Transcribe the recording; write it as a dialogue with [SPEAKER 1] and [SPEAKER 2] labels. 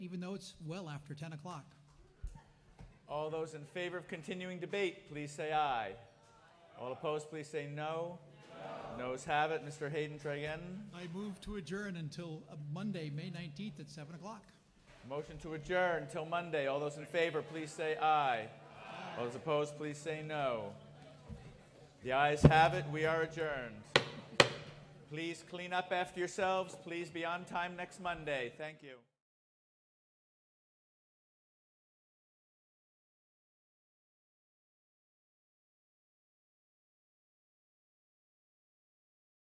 [SPEAKER 1] even though it's well after 10 o'clock.
[SPEAKER 2] All those in favor of continuing debate, please say aye. All opposed, please say no. Noes have it. Mr. Hayden, try again.
[SPEAKER 1] I move to adjourn until uh, Monday, May 19th at 7 o'clock.
[SPEAKER 2] Motion to adjourn till Monday. All those in favor, please say aye. All those opposed, please say no. The ayes have it. We are adjourned. Please clean up after yourselves. Please be on time next Monday. Thank you.